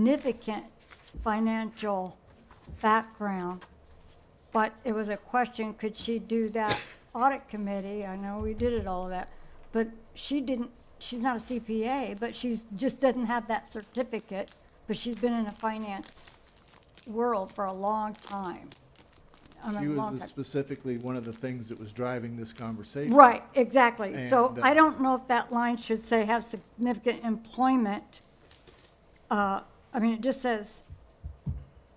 significant financial background, but it was a question, could she do that audit committee? I know we did it all that, but she didn't, she's not a CPA, but she's, just doesn't have that certificate, but she's been in the finance world for a long time. I mean, She long was time. specifically one of the things that was driving this conversation. Right, exactly. So And, uh, I don't know if that line should say have significant employment. Uh, I mean, it just says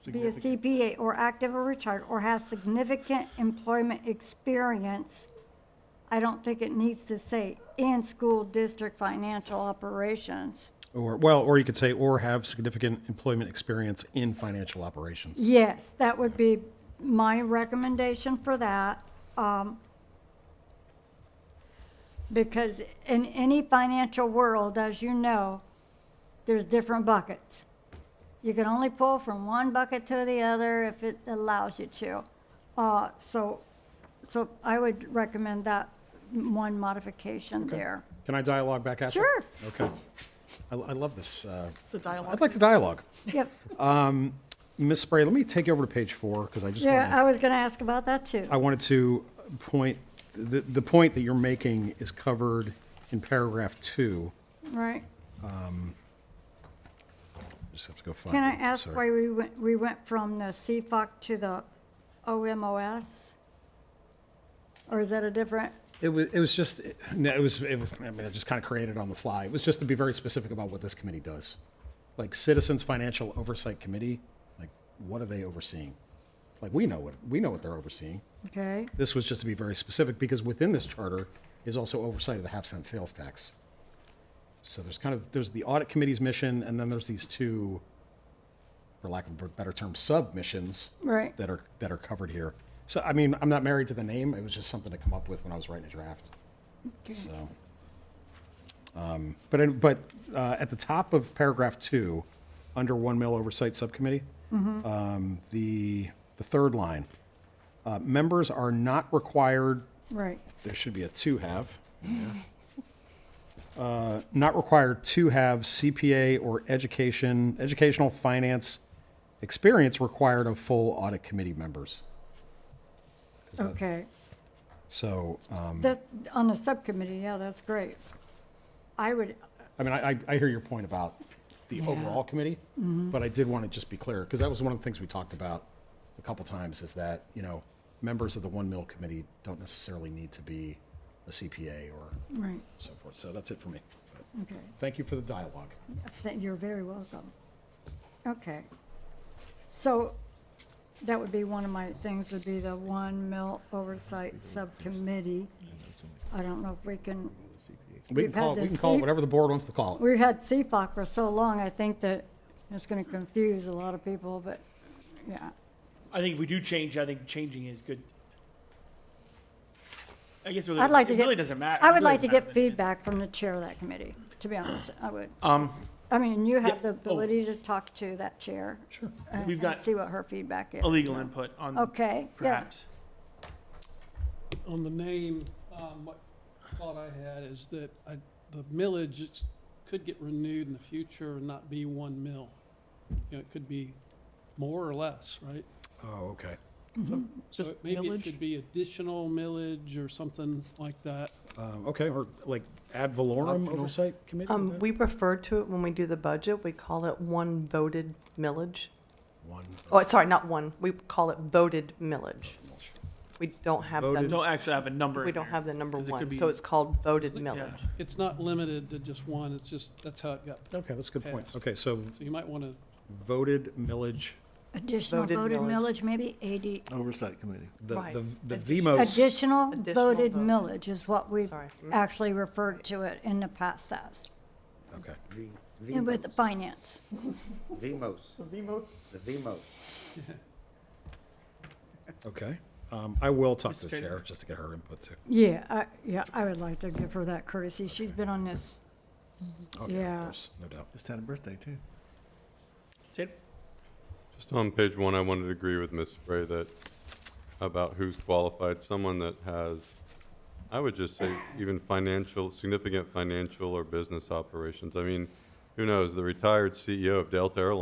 be a Significant. CPA or active or retired or have significant employment experience. I don't think it needs to say in school district financial operations. Or, well, or you could say, or have significant employment experience in financial operations. Yes, that would be my recommendation for that. um, Because in any financial world, as you know, there's different buckets. You can only pull from one bucket to the other if it allows you to. Uh, So, so I would recommend that one modification there. Can I dialogue back after? Sure. Okay. I, I love this. uh, The dialogue. I'd like to dialogue. Yep, Ms. Spray, let me take you over to page four, because I just want yeah, I to, was gonna ask about that too. I wanted to point, the, the point that you're making is covered in paragraph two. Right. Just have to go find it. Can I ask Sorry. why we went, we went from the CFOC to the OMOS? Or is that a different, It was, it was just, no, it was, it was, I mean, I just kind of created it on the fly. It was just to be very specific about what this committee does. Like Citizens Financial Oversight Committee, like, what are they overseeing? Like, we know what, we know what they're overseeing. okay, This was just to be very specific, because within this charter is also oversight of the half cent sales tax. So there's kind of, there's the audit committee's mission, and then there's these two, for lack of a better term, submissions right, that are, that are covered here. So, I mean, I'm not married to the name, it was just something to come up with when I was writing a draft. So, um, but, in- but uh, at the top of paragraph two, under one mill oversight subcommittee, um, the, the third line, uh, members are not required, right, there should be a to have. Uh, Not required to have CPA or education, educational finance experience required of full audit committee members. 'Cause that- okay. So, um, That, on the subcommittee, yeah, that's great. I would, I mean, I, I- I hear your point about the overall committee, but I did want to just be clear, because that was one of the things we talked about a couple times, is that, you know, members of the One Mill Committee don't necessarily need to be a CPA or right, so forth. So that's it for me. okay, Thank you for the dialogue. Th- you're very welcome. Okay. So, that would be one of my things, would be the one mill oversight subcommittee. I don't know if we can We We've can call, had it- we this can call it deep- whatever the board wants to call it. We've had CFOC for so long, I think that it's going to confuse a lot of people, but, yeah. I think if we do change, I think changing is good. I guess it really, I'd like to it get- really doesn't matter. I would like to get feedback from the chair of that committee, to be honest, I would. Um, I mean, you have yeah, the oh. ability to talk to that chair. Sure. and- We've and got See what her feedback is. a legal input on Okay, yeah, perhaps. on the name, um, what thought I had is that I, the millage is- could get renewed in the future and not be one mill. You know, it could be more or less, right? Oh, okay. So Mm-hmm. Just it- maybe it millage? should be additional millage or something like that. Um, okay, or like ad valorem Optional. oversight committee? Mm-hmm. Um, we refer to it when we do the budget, we call it one voted millage. One. Oh, sorry, not one, we call it voted millage. We don't have We the, don't actually have a number. Um, we in don't there. have the number 'Cause it could one, be- so it's called voted Yeah. millage. It's not limited to just one, it's just, that's how it got. Okay, that's a good point. Passed. Okay, so So you might want to, voted millage, additional Voted voted millage. millage, maybe eighty, Oversight Committee. the, Right. the, the Oh, Addition- VMOS. additional Additional voted voted. millage is what we've Sorry. actually referred to it in the past as, Okay. V- and with the Vmos. finance. Vmos. The Vmos. Okay. Um, I will talk to the Mr. Chairman. chair just to get her input too. Yeah, I, yeah, I would like to give her that courtesy. She's been on this, Okay, of Yeah. course, No doubt. Just had a birthday, too. Sid? Just on page one, I wanted to agree with Ms. Spray that, about who's qualified, someone that has, I would just say even financial, significant financial or business operations. I mean, who knows, the retired CEO E of Delta Airlines